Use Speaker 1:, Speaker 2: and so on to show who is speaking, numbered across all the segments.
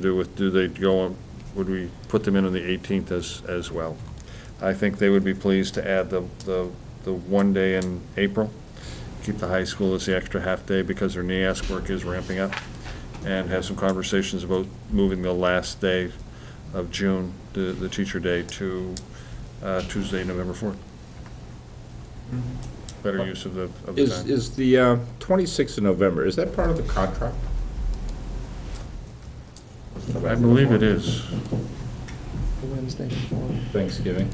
Speaker 1: to do with, do they go, on? would we put them in on the 18th as, as well? I think they would be pleased to add the, the, the one day in April, keep the high school as the extra half-day because their NEAS work is ramping up, and have some conversations about moving the last day of June, the, the teacher day, to uh, Tuesday, November 4th. Better use of the, of the
Speaker 2: Is,
Speaker 1: time.
Speaker 2: is the uh, 26th of November, is that part of the contract?
Speaker 1: I believe it is.
Speaker 3: Wednesday before.
Speaker 2: Thanksgiving?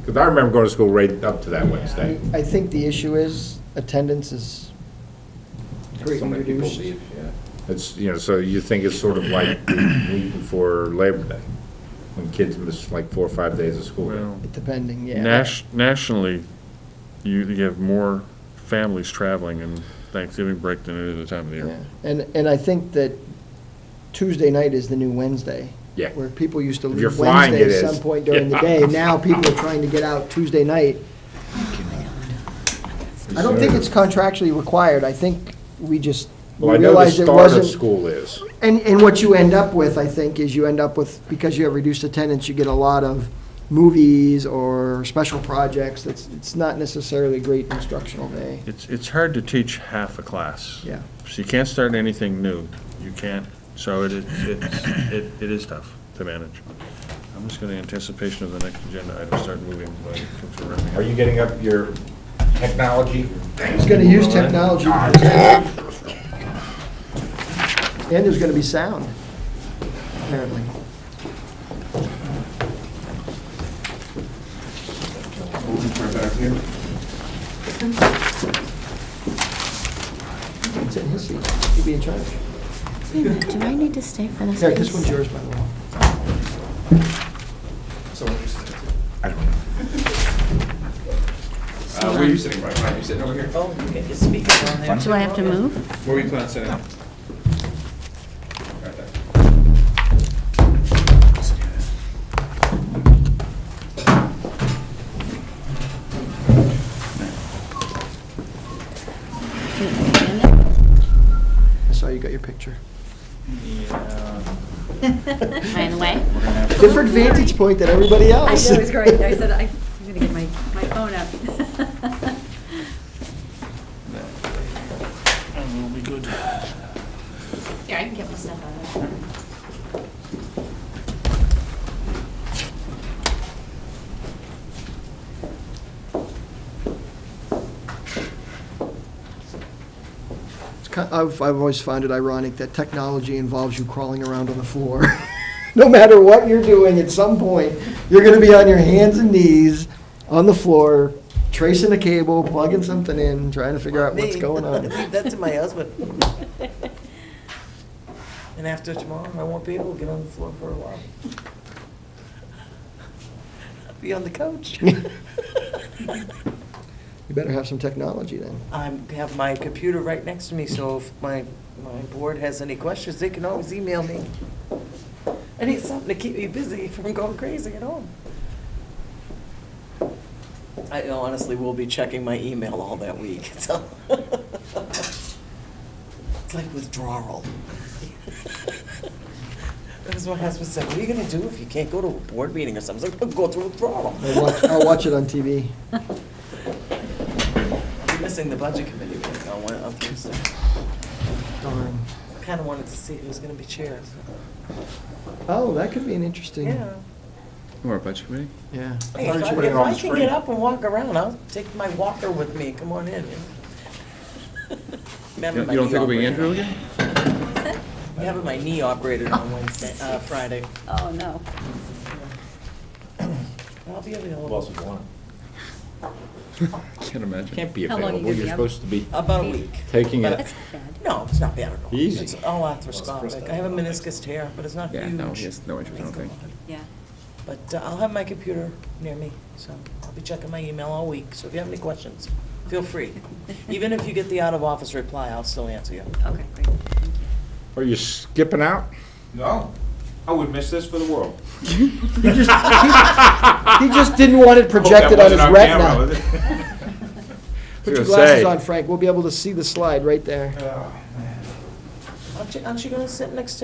Speaker 2: Because I remember going to school right up to that Wednesday.
Speaker 3: I think the issue is attendance is
Speaker 2: So
Speaker 3: greatly
Speaker 2: many people
Speaker 3: reduced.
Speaker 2: leave, yeah. It's, you know, so you think it's sort of like the week before Labor Day, when kids miss like four or five days of school.
Speaker 1: Well,
Speaker 3: Depending, yeah.
Speaker 1: Nash, nationally, you, you have more families traveling in Thanksgiving break than any other time of the
Speaker 3: Yeah.
Speaker 1: year.
Speaker 3: And, and I think that Tuesday night is the new Wednesday.
Speaker 2: Yeah.
Speaker 3: Where people used to
Speaker 2: If you're
Speaker 3: leave
Speaker 2: flying, it
Speaker 3: Wednesday at
Speaker 2: is.
Speaker 3: some point during the day. Now people are trying to get out Tuesday night. I don't think it's contractually required. I think we just
Speaker 2: Well, I know the
Speaker 3: realized it
Speaker 2: start of
Speaker 3: wasn't.
Speaker 2: school is.
Speaker 3: And, and what you end up with, I think, is you end up with, because you have reduced attendance, you get a lot of movies or special projects. That's, it's not necessarily a great instructional day.
Speaker 1: It's, it's hard to teach half a class.
Speaker 3: Yeah.
Speaker 1: So you can't start anything new. You can't, so it, is- it's- it, it is tough to manage. I'm just going to anticipation of the next agenda item, start moving. like, things are wrapping up.
Speaker 2: Are you getting up your technology?
Speaker 3: It's gonna use technology. And there's gonna be sound, apparently. It's in his seat. He'd be in charge.
Speaker 4: Wait a minute, do I need to stay for this?
Speaker 3: Yeah, this
Speaker 4: piece?
Speaker 3: one's yours, by the way.
Speaker 5: So where are you sitting?
Speaker 2: I don't know.
Speaker 5: Uh, where are you sitting, Brian? Brian, you sitting over here?
Speaker 6: Oh, you get your speakers on there.
Speaker 4: Do I have to move?
Speaker 5: Where were you planning on sitting? Right there.
Speaker 3: I saw you got your picture.
Speaker 4: By the way,
Speaker 3: Different vantage point than everybody
Speaker 7: I
Speaker 3: else.
Speaker 7: know, it's great. I said, I- I'm going to get my, my phone up.
Speaker 4: here, I can get my stuff out of it.
Speaker 3: It's ki- I've, I've always found it ironic that technology involves you crawling around on the floor. No matter what you're doing, at some point, you're gonna be on your hands and knees on the floor, tracing a cable, plugging something in, trying to figure out what's
Speaker 6: Me.
Speaker 3: going on.
Speaker 6: Leave that to my husband. And after tomorrow, I won't be able to get on the floor for a while. I'll Be on the couch.
Speaker 3: You better have some technology then.
Speaker 6: I have my computer right next to me, so if my, my board has any questions, they can always email me. I need something to keep me busy from going crazy at home. I honestly will be checking my email all that week, so. It's like withdrawal. That was what my husband said, what are you gonna do if you can't go to a board meeting or something? I was like, "I'll go through withdrawal.
Speaker 3: I'll watch, I'll watch it on TV.
Speaker 6: I'm missing the budget committee meeting on Wed- on Tuesday.
Speaker 3: Darn.
Speaker 6: Kind of wanted to see who's going to be chair. so-
Speaker 3: Oh, that could be an interesting,
Speaker 6: Yeah.
Speaker 5: Or a budget committee?
Speaker 3: yeah.
Speaker 6: Hey,
Speaker 2: thought
Speaker 6: If
Speaker 2: you
Speaker 6: I
Speaker 2: put it
Speaker 6: if
Speaker 2: on
Speaker 6: I
Speaker 2: the
Speaker 6: can
Speaker 2: screen.
Speaker 6: get up and walk around, I'll take my walker with me, come on in. you know. I'm having
Speaker 5: You don't
Speaker 6: my
Speaker 5: you don't
Speaker 6: knee
Speaker 5: think it'll be
Speaker 6: operated
Speaker 5: Andrew
Speaker 6: on-
Speaker 5: again?
Speaker 6: I'm having my knee operated on Wednesday, uh, Friday.
Speaker 7: Oh, no.
Speaker 6: I'll be available.
Speaker 5: Can't imagine.
Speaker 2: Can't be
Speaker 7: How long you
Speaker 2: available,
Speaker 7: gonna be
Speaker 2: you're
Speaker 7: up?
Speaker 2: supposed to be
Speaker 6: About a week.
Speaker 2: taking it.
Speaker 7: That's not bad.
Speaker 6: No, it's not bad at all.
Speaker 2: Easy.
Speaker 6: It's all arthroscopic. I have a meniscus tear, but it's not huge.
Speaker 5: Yeah, no, he has no interest, I don't think.
Speaker 7: Yeah.
Speaker 6: But uh, I'll have my computer near me, so I'll be checking my email all week. So if you have any questions, feel free. Even if you get the out-of-office reply, I'll still answer you.
Speaker 7: Okay, great. Thank you.
Speaker 2: Are you skipping out?
Speaker 8: No, I would miss this for the world.
Speaker 3: He just didn't want it projected on his retina. Put
Speaker 2: was
Speaker 3: your
Speaker 2: gonna say.
Speaker 3: glasses on, Frank. We'll be able to see the slide right there.
Speaker 6: Aren't you, aren't you gonna sit next to